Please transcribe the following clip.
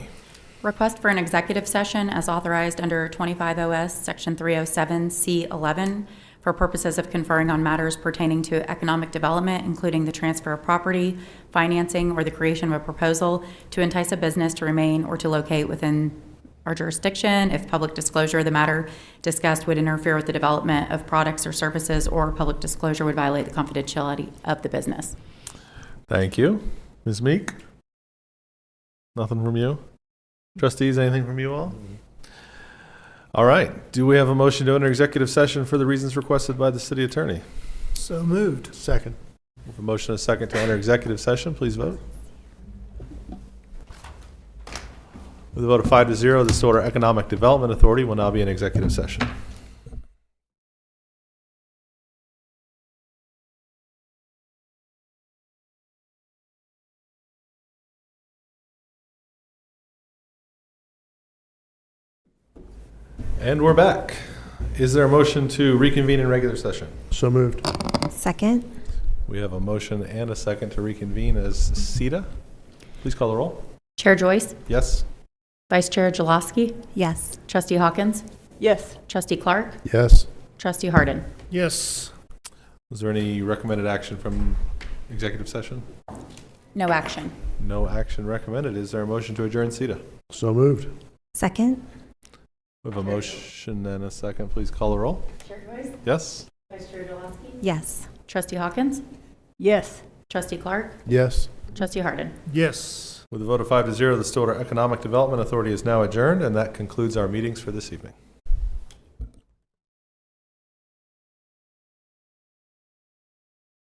Request for an executive session as authorized under 25 OS, Section 307C11, for purposes of conferring on matters pertaining to economic development, including the transfer of property, financing, or the creation of a proposal to entice a business to remain or to locate within our jurisdiction if public disclosure of the matter discussed would interfere with the development of products or services, or public disclosure would violate the confidentiality of the business. Thank you. Ms. Meek? Nothing from you? Trustees, anything from you all? All right. Do we have a motion to enter executive session for the reasons requested by the city attorney? So moved. Second. With a motion and a second to enter executive session, please vote. With a vote of five to zero, this order Economic Development Authority will now be in executive session. And we're back. Is there a motion to reconvene in regular session? So moved. Second? We have a motion and a second to reconvene as SETA. Please call the roll. Chair Joyce, Yes? Vice Chair Jaloski, Yes. Trustee Hawkins, Yes. Trustee Clark, Yes. Trustee Harden. Yes. Was there any recommended action from executive session? No action. No action recommended. Is there a motion to adjourn SETA? So moved. Second? We have a motion and a second. Please call the roll. Yes? Yes. Trustee Hawkins, Yes. Trustee Clark, Yes. Trustee Harden. Yes. With a vote of five to zero, the Stillwater Economic Development Authority is now adjourned, and that concludes our meetings for this evening.